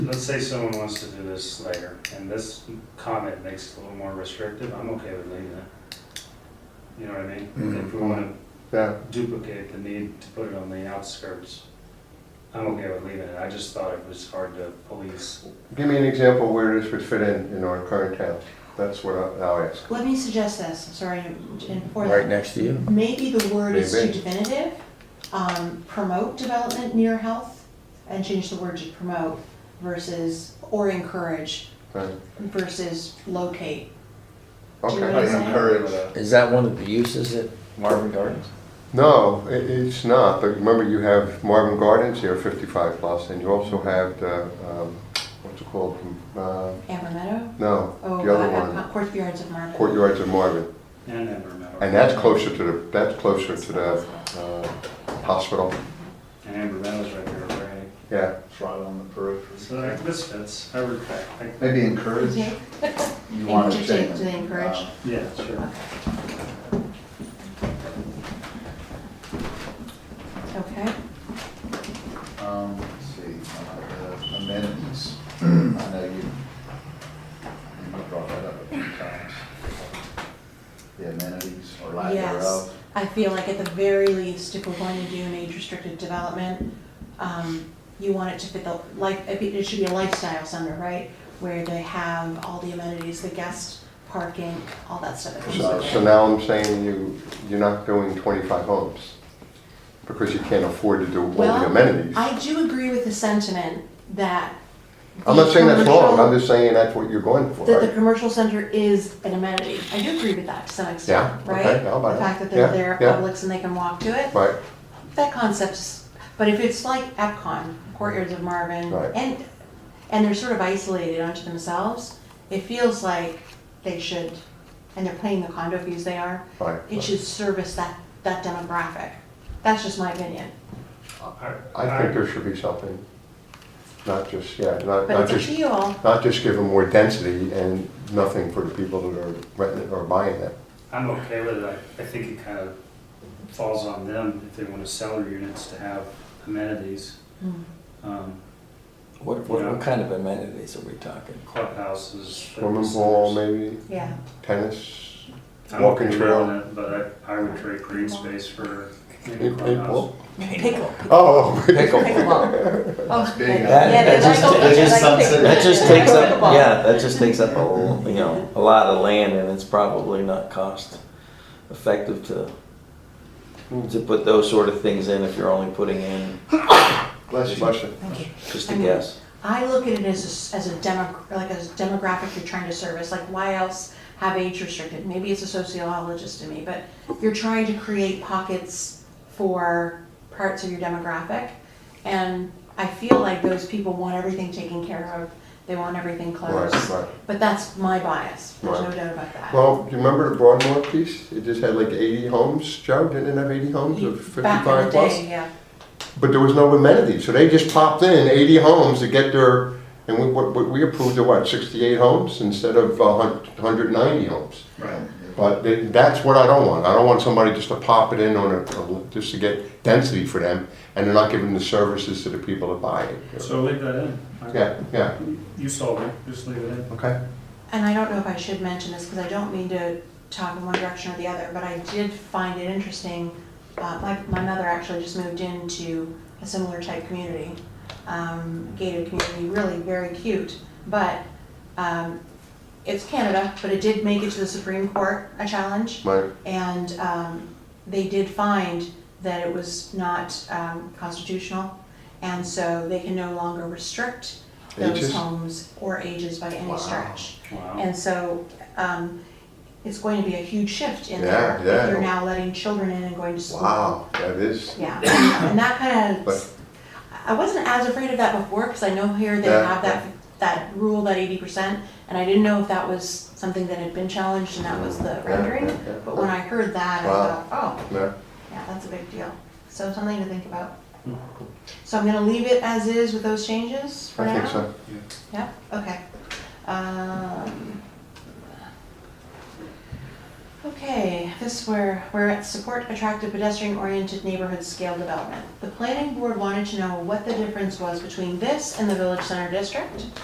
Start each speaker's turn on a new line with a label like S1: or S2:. S1: let's say someone wants to do this later, and this comment makes it a little more restrictive, I'm okay with leaving it. You know what I mean?
S2: Mhm.
S1: If we wanna
S2: Yeah,
S1: duplicate the need to put it on the outskirts, I'm okay with leaving it, I just thought it was hard to police.
S2: give me an example where this would fit in, in our current town. That's what I- I'll ask.
S3: Let me suggest this, I'm sorry to inform
S4: right
S3: that.
S4: next to you.
S3: Maybe the word is too
S2: Maybe.
S3: definitive. Um, promote development near health and change the word to promote versus, or encourage
S2: Fine.
S3: versus locate. Do you
S2: Okay.
S3: really-
S4: Is that one of the uses at Marvin Gardens?
S2: No, it, it's not, but remember you have Marvin Gardens here, fifty-five plus, and you also have the, um, what's it called? Uh,
S3: Amber Meadow?
S2: No,
S3: Oh,
S2: the other
S3: uh,
S2: one,
S3: courtyards of Marvin.
S2: Courtyards of Marvin.
S1: And I never remember.
S2: And that's closer to the, that's closer to the, uh, hospital.
S1: And Amber Meadows right there, right?
S2: Yeah,
S5: It's right on the periphery.
S1: So like, this fits, I would, I-
S5: Maybe encourage,
S3: Okay.
S5: you want to
S3: Encourage,
S5: change.
S3: do they encourage?
S5: uh,
S1: yeah, sure.
S3: Okay,
S5: Um, let's see, uh, amenities, I know you, you brought that up a few times. The amenities or lack
S3: yes.
S5: thereof.
S3: I feel like at the very least, if we're going to do an age restricted development, um, you want it to fit the, like, it be- it should be a lifestyle center, right? Where they have all the amenities, the guest parking, all that stuff that comes
S2: so,
S3: with
S2: so
S3: it.
S2: now I'm saying you, you're not doing twenty-five homes, because you can't afford to do all the
S3: Well,
S2: amenities.
S3: I do agree with the sentiment that.
S2: I'm not
S3: the
S2: saying that's wrong,
S3: commercial-
S2: I'm just saying that's what you're going for,
S3: That the
S2: right?
S3: commercial center is an amenity. I do agree with that to some
S2: Yeah,
S3: extent, right?
S2: okay, I'll buy
S3: The
S2: that.
S3: fact that they're
S2: Yeah,
S3: there,
S2: yeah.
S3: Publix, and they can walk to it,
S2: Right,
S3: that concept's, but if it's like Epcun, Courtyards of Marvin,
S2: Right.
S3: and, and they're sort of isolated unto themselves, it feels like they should, and they're paying the condo fees they are,
S2: right.
S3: it should service that, that demographic. That's just my opinion.
S2: I think there should be something, not just, yeah, not, not
S3: But it's up to
S2: just,
S3: you all.
S2: not just give them more density and nothing for the people that are renting it or buying it.
S1: I'm okay with it. I- I think it kind of falls on them if they want to sell their units to have amenities,
S3: Mm.
S1: um,
S4: What, what,
S1: Yeah.
S4: what kind of amenities are we talking?
S1: clubhouses.
S2: Swimming
S1: fitness
S2: pool,
S1: centers.
S2: maybe,
S3: Yeah,
S2: tennis,
S1: I'm
S2: walking
S1: okay
S2: trail.
S1: with it, But I, I would trade green space for maybe a
S2: eight, eight
S1: clubhouse.
S2: ball.
S3: Pickle.
S2: Oh.
S3: pickleball.
S5: That's big.
S4: That-
S3: Oh. Yeah, they
S4: that just-
S3: like
S4: that just
S3: pickleball.
S4: sums it- That just
S3: They
S4: takes
S3: like
S4: up,
S3: pickleball.
S4: yeah, that just takes up a, l- you know, a lot of land and it's probably not cost effective to, to put those sort of things in if you're only putting in
S2: Bless you.
S3: thank you.
S4: just a guess.
S3: I look at it as, a s- as a demo, like as a demographic you're trying to service, like why else have age restricted? Maybe it's a sociologist to me, but you're trying to create pockets for parts of your demographic. And I feel like those people want everything taken care of, they want everything
S2: Right,
S3: closed.
S2: right.
S3: But that's my bias, there's no
S2: Right.
S3: doubt about that.
S2: Well, do you remember the Broadmoor piece? It just had like eighty homes, Joe, didn't it have eighty homes of
S3: Back in
S2: fifty-five
S3: the day,
S2: plus?
S3: yeah.
S2: But there was no amenities, so they just popped in eighty homes to get their, and we, what- what- we approved of what, sixty-eight homes instead of hundred ninety homes?
S5: Right.
S2: But th- that's what I don't want. I don't want somebody just to pop it in on a, a- just to get density for them, and they're not giving the services to the people that buy it.
S1: So leave that in.
S2: Yeah, yeah,
S1: You sold it, just leave it in.
S2: okay.
S3: And I don't know if I should mention this, because I don't mean to talk in one direction or the other, but I did find it interesting. Uh, my, my mother actually just moved into a similar type community, um, gated community, really very cute. But, um, it's Canada, but it did make it to the Supreme Court, a challenge.
S2: Right,
S3: And um, they did find that it was not um, constitutional, and so they can no longer restrict those
S2: Ages?
S3: homes or ages by any
S2: Wow.
S3: stretch.
S1: Wow.
S2: Oh.
S3: And so um, it's going to be a huge shift in
S2: Yeah,
S3: there. if
S2: yeah.
S3: You're now letting children in and going to school.
S2: wow, that is,
S3: Yeah, and that kind
S2: But-
S3: of, I wasn't as afraid of that before, because I know here they
S2: Yeah,
S3: have that, that rule, that eighty percent, and I didn't know if that was something that had been challenged, and that was the
S2: Mm, Yeah,
S3: rendering,
S2: yeah, yeah.
S3: but when I heard that, I
S2: Wow.
S3: thought, oh,
S2: yeah,
S3: yeah, that's a big deal, so something to think about.
S2: Mm,
S1: Hmm.
S3: So I'm gonna leave it as is with those changes for now?
S2: I think so.
S3: Yep, okay. Um, Okay, fiscal six, where we're at support attractive pedestrian-oriented neighborhood scale development. The planning board wanted to know what the difference was between this and the village center district.